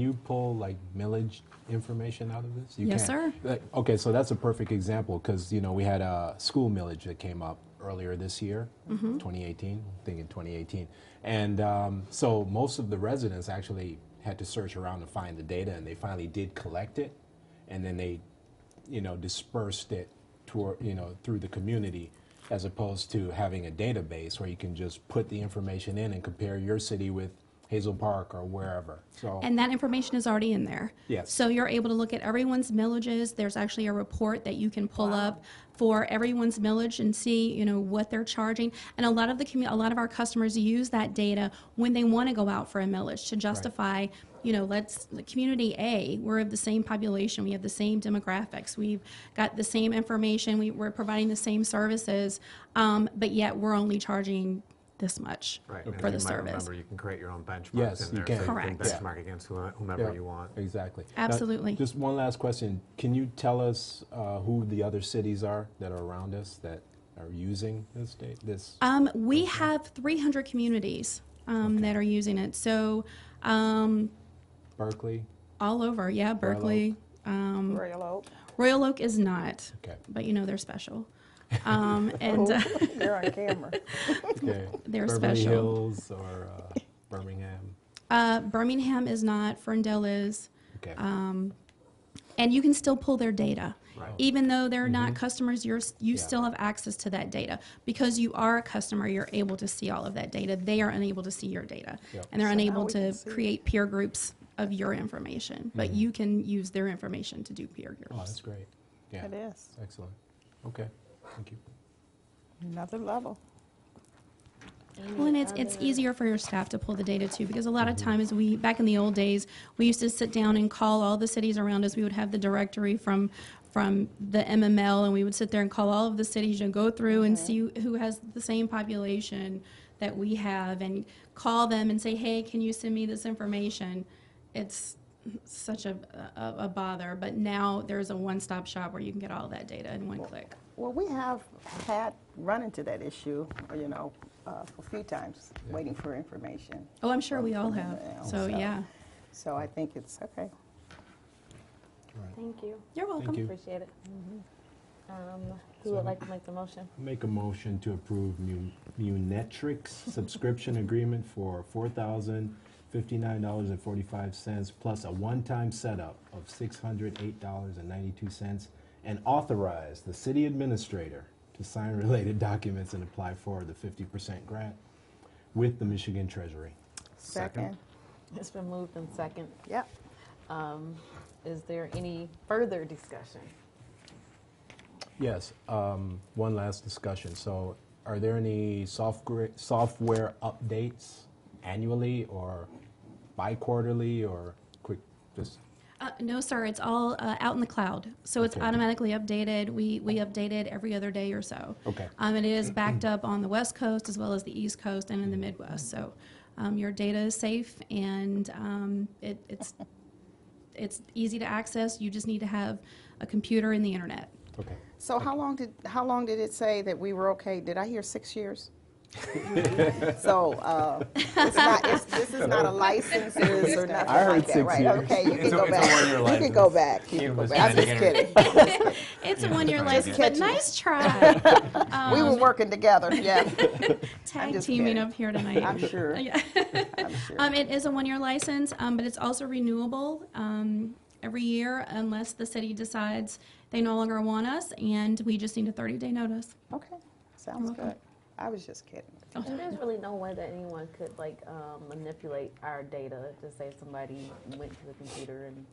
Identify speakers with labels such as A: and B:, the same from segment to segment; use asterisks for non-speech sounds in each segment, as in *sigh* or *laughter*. A: you pull like millage information out of this? You
B: Yes,
A: can.
B: sir.
A: Like, Okay, so that's a perfect example because, you know, we had a school millage that came up earlier this year,
B: Mm-hmm.
A: 2018, I think in 2018. And um, so most of the residents actually had to search around to find the data and they finally did collect it. And then they, you know, dispersed it toward, you know, through the community as opposed to having a database where you can just put the information in and compare your city with Hazel Park or wherever.
C: Oh.
A: So
B: And that information is already in there.
A: Yes.
B: So you're able to look at everyone's millages. There's actually a report that you can pull up for everyone's millage and see, you know, what they're charging. And a lot of the commu- a lot of our customers use that data when they want to go out for a millage to justify, you know, let's community A, we're of the same population, we have the same demographics, we've got the same information, we, we're providing the same services, um, but yet we're only charging this much
C: Right. and
B: for
C: as
B: the
C: you might
B: service.
C: Remember, you can create your own benchmarks
A: Yes,
C: in
A: you
C: there.
A: can.
C: so you can
B: Correct.
C: benchmark against whoe- whomever
A: Yeah,
C: you want.
A: Exactly. Now,
B: Absolutely.
A: just one last question. Can you tell us uh, who the other cities are that are around us that are using this date? This
B: Um, we have 300 communities um, that are using it. So um,
A: Berkeley?
B: all over, yeah, Berkeley.
D: Royal Oak.
B: Royal Oak is not,
A: Okay. Oh.
B: but you know they're
A: *laughs*
B: special. Um, and uh,
D: *laughs* You're on camera.
A: okay.
B: They're
A: Beverly
B: special.
A: Hills or uh, Birmingham?
B: *laughs* uh, Birmingham is not, Ferndale is.
A: Okay.
B: Um, and you can still pull their data.
C: Right.
B: Even though they're not customers, you're, s- you
A: Mm-hmm. Yeah.
B: still have access to that data. Because you are a customer, you're able to see all of that data. They are unable to see your data.
A: Yep.
B: And they're unable
D: we
B: to
D: can see.
B: create peer groups of your information. But you can use their information to do peer
A: oh, Mm-hmm. that's
B: groups.
A: great. Yeah.
D: It is.
A: Excellent. Okay. Thank you.
D: Another level.
B: well, and it's, it's easier for your staff to pull the data too, because a lot of times we, back in the old days, we used to sit down and call all the cities around us. We would have the directory from from the MML, and we would sit there and call all of the cities and go through and see who has the same population that we have, and call them and say, hey, can you send me this information? It's such a, a, a bother, but now there's a one-stop shop where you can get all that data in one click.
D: Well, we have had run into that issue, you know, uh, a few times, waiting for information.
B: Oh, I'm sure we all
D: from
B: have.
D: email,
B: So, yeah.
D: So I think it's okay.
E: Thank you.
B: You're welcome.
A: Thank you.
E: Appreciate it. Um, Who would like to make the motion?
A: Make a motion to approve Mu- Munetrics subscription agreement for four thousand fifty-nine dollars and forty-five cents plus a one-time setup of six hundred eight dollars and ninety-two cents, and authorize the city administrator to sign related *laughs* documents and apply for the fifty percent grant with the Michigan Treasury.
D: Second.
E: It's been moved in second.
D: Yep.
E: Um, Is there any further discussion?
A: Yes, um, one last discussion. So are there any software, software updates annually or bi-quarterly or quick, just,
B: Uh, no, sir. It's all uh, out in the cloud, so it's
A: Okay.
B: automatically updated. We we update it every other day or so.
A: Okay.
B: Um, and it is backed up on the West Coast as well as the East Coast and in the Midwest. So, um, your data is safe and um, it, it's it's easy to access. You just need to have a computer and the internet.
A: okay.
D: So how long did, how long did it say that we were okay? Did I hear six years? So, uh, it's not, it's, this is not a licenses or nothing like that, right?
A: I heard six years.
D: Okay, you can
C: It's a-
D: go
C: it's a
D: back.
C: one-year
D: You can
C: license.
D: go back. You
C: He
D: can go
C: was
D: back. I'm just
C: trying to
D: kidding.
B: It's a
A: *laughs*
B: one-year
C: Just
B: license, but
D: catching it.
B: nice try.
D: We were working together, yeah.
B: Tag
D: just
B: teaming
D: kidding.
B: up here tonight.
D: I'm sure.
B: Yeah.
D: I'm sure.
B: Um, it is a one-year license, um, but it's also renewable, um, every year unless the city decides they no longer want us and we just need a thirty-day notice.
D: Okay, sounds
B: welcome.
D: good. I was just kidding.
E: And There's really no way that anyone could like um, manipulate our data to say somebody went to the computer and,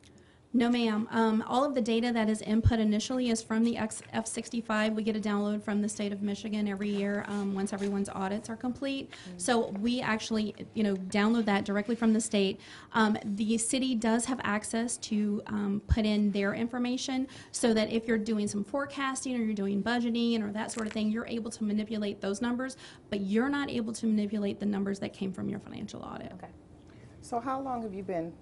B: No, ma'am. Um, all of the data that is input initially is from the X, F-65. We get a download from the state of Michigan every year, um, once everyone's audits are complete. So we actually, you know, download that directly from the state. Um, the city does have access to, um, put in their information so that if you're doing some forecasting or you're doing budgeting or that sort of thing, you're able to manipulate those numbers, but you're not able to manipulate the numbers that came from your financial audit.
E: okay.
D: So how long have you been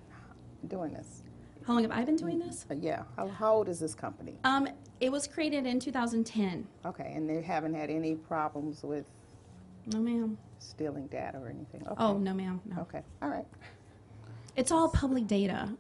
D: doing this?
B: How long have I been doing this?
D: Uh, Yeah, how, how old is this company?
B: Um, it was created in 2010.
D: Okay, and they haven't had any problems with
B: No, ma'am.
D: stealing data or anything? Okay.
B: Oh, no, ma'am. No.
D: Okay, all right.
B: it's all public data.